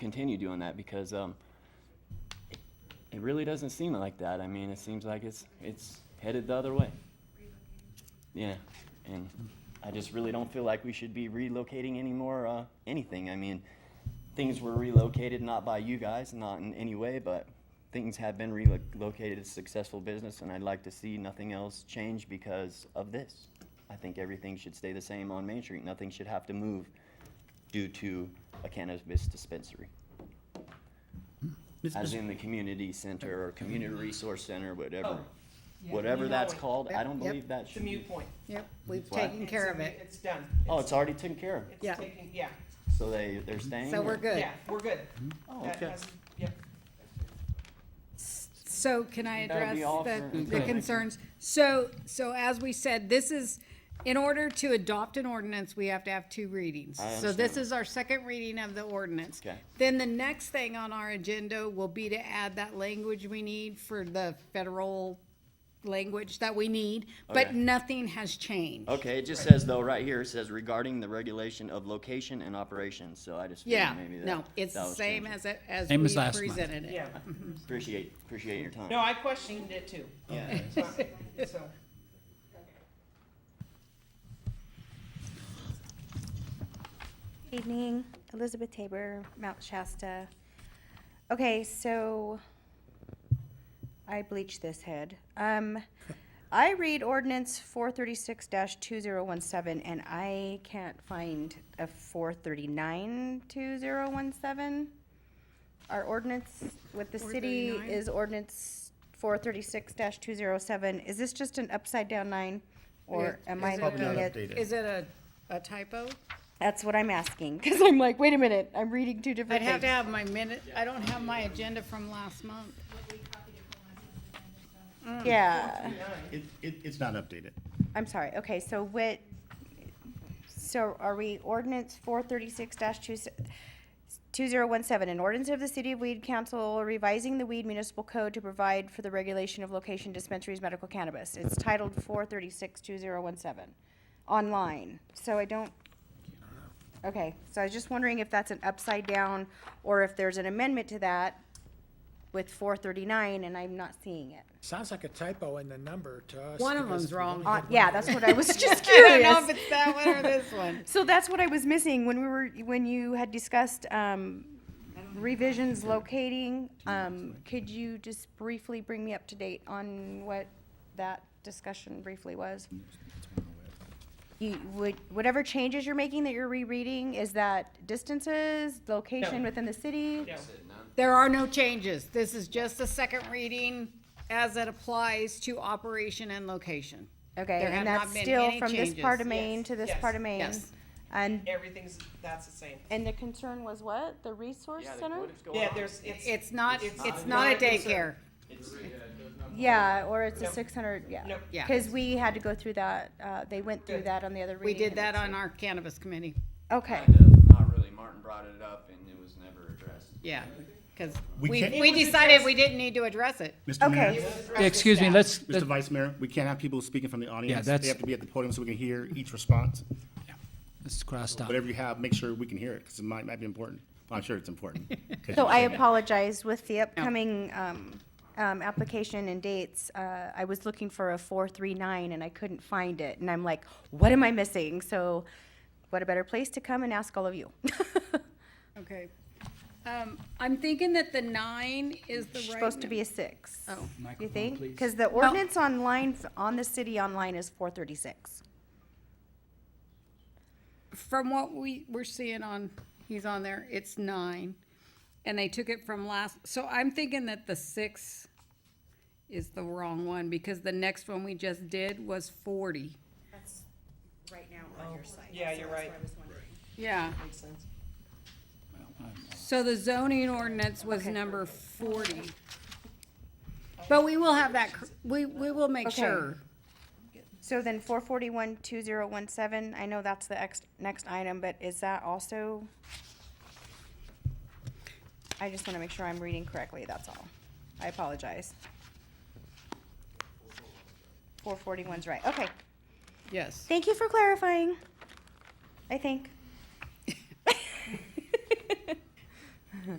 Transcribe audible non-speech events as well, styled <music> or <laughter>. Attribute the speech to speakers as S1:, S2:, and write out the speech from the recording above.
S1: continue doing that because um, it, it really doesn't seem like that. I mean, it seems like it's it's headed the other way. Yeah, and I just really don't feel like we should be relocating anymore. Uh, anything. I mean, things were relocated not by you guys, not in any way, but things have been relocated. It's a successful business, and I'd like to see nothing else change because of this. I think everything should stay the same on Main Street. Nothing should have to move due to a cannabis dispensary,
S2: Ms.
S1: as
S2: Ms.
S1: in the community center or community resource center, whatever.
S3: Oh, yeah,
S1: Whatever
S3: you
S1: that's
S3: know it.
S1: called, I don't
S4: Yep.
S1: believe that
S3: It's a
S1: should be.
S3: mute point.
S4: Yep, we've
S1: Why?
S4: taken care of
S3: It's a-
S4: it.
S3: It's done.
S1: Oh, it's already taken care of.
S4: Yeah.
S3: It's taken, yeah,
S1: So they, they're staying?
S4: So
S1: or-
S4: we're good.
S3: yeah, we're good.
S1: Oh,
S3: That
S1: okay.
S3: hasn't- Yep.
S4: So can I
S1: That'd
S4: address
S1: be all for-
S4: the, the
S1: Okay.
S4: concerns? So, so as we said, this is, in order to adopt an ordinance, we have to have two readings.
S1: I
S4: So this
S1: understand.
S4: is our second reading of the ordinance.
S1: Okay.
S4: Then the next thing on our agenda will be to add that language we need for the federal language that we need, but
S1: Okay.
S4: nothing has changed.
S1: Okay, it just says though, right here, it says regarding the regulation of location and operations, so I just
S4: Yeah,
S1: figured maybe that.
S4: no, it's
S1: that
S4: the
S1: was
S4: same
S1: changing.
S4: as, it- as we
S2: Same as last month.
S4: presented it.
S3: Yeah.
S1: Appreciate, appreciate your time.
S3: <laughs> No, I questioned it too.
S1: Yeah.
S4: <laughs>
S3: So,
S5: Evening, Elizabeth Tabor, Mount Shasta. Okay, so I bleached this head.
S4: <laughs>
S5: Um, I read ordinance four thirty-six two zero one seven, and I can't find a 439-2017. Our ordinance with the city
S4: 439?
S5: is ordinance four thirty-six two zero seven. Is this just an upside down nine? Or
S4: Yeah,
S5: am I
S4: is it
S5: looking
S4: not
S5: at?
S4: Is it a, a typo?
S5: That's what I'm asking, because I'm like, wait a minute, I'm reading two different
S4: I'd
S5: things.
S4: have to have my minute, I don't have my agenda from last <laughs> month.
S5: Yeah,
S6: It, it, it's not updated.
S5: I'm sorry, okay, so what, so are we ordinance four thirty-six two, two zero one seven, an ordinance of the city of Weed Council revising the Weed Municipal Code to provide for the regulation of location dispensaries medical cannabis. It's titled four thirty-six two zero one seven, online, so I don't, okay, so I was just wondering if that's an upside down, or if there's an amendment to that with four thirty-nine, and I'm not seeing it.
S7: Sounds like a typo in the number to us.
S4: One of
S7: because
S4: them's
S7: we
S4: wrong.
S7: only
S5: Uh,
S7: had one
S5: yeah,
S7: vote.
S5: that's what
S4: <laughs>
S5: I was just
S4: I don't know if
S5: curious.
S4: it's that one or <laughs> this one.
S5: So that's what I was missing when we were, when you had discussed um, revisions locating. Um, Could you just briefly bring me up to date on what that discussion briefly was? You, would, whatever changes you're making that you're rereading, is that distances, location within the city?
S3: no.
S4: There are no changes, this is just a second reading as it applies to operation and location.
S5: Okay,
S4: There have
S5: and
S4: not
S5: that's
S4: been
S5: still
S4: any
S5: from this part of
S4: changes.
S5: Maine
S3: Yes,
S5: to this
S3: yes,
S5: part of Maine?
S4: yes.
S5: And,
S3: everything's, that's the same.
S5: and the concern was what? The resource center?
S3: Yeah, there's, it's.
S4: It's not,
S3: It's
S4: it's
S3: not
S4: not a
S3: a concern.
S4: daycare.
S1: uh,
S5: Yeah, or it's
S3: No.
S5: a six hundred, yeah.
S3: Nope.
S4: Yeah.
S5: Because we had to go through that, uh, they went through
S3: Good.
S5: that on the other
S4: We
S5: reading.
S4: did
S5: and
S4: that
S5: it's-
S4: on our cannabis committee,
S5: Okay,
S1: Not really, Martin brought it up and it was never addressed.
S4: yeah, because we,
S6: We can't-
S4: we
S3: It was
S4: decided
S3: addressed.
S4: we didn't need to address it.
S6: Mr.
S5: okay,
S6: Mayor,
S2: Excuse me, let's,
S6: Mr. Vice Mayor, we can't have people speaking from the audience.
S2: that's-
S6: They have to be at the podium so we can hear each response.
S2: let's cross out.
S6: Whatever you have, make sure we can hear it, because it might, might be important. I'm sure it's important. 'Cause
S5: so
S6: you
S5: I
S6: said that.
S5: apologize with the upcoming, um, um, application and dates. Uh, I was looking for a four, three, nine and I couldn't find it and I'm like, what am I missing? So what a better place to come and ask all of you. <laughs>
S4: Okay. Um, I'm thinking that the nine is the right.
S5: Supposed to
S4: num-
S5: be a six.
S4: Oh.
S5: You
S2: Microphone,
S5: think?
S2: please.
S5: Because the ordinance online, on the city online is four thirty-six.
S4: from what we, we're seeing on, he's on there, it's nine. And they took it from last, so I'm thinking that the six is the wrong one, because the next one we just did was forty.
S5: Right now on your site.
S3: Yeah, you're right.
S4: Yeah,
S3: Makes sense.
S4: so the zoning ordinance was number forty. But we will have that, cor- we, we will make
S5: Okay.
S4: sure.
S5: So then four forty-one, two zero one seven, I know that's the next, next item, but is that also? I just wanna make sure I'm reading correctly, that's all. I apologize. Four forty-one's right, okay.
S4: Yes,
S5: Thank you for clarifying, I think.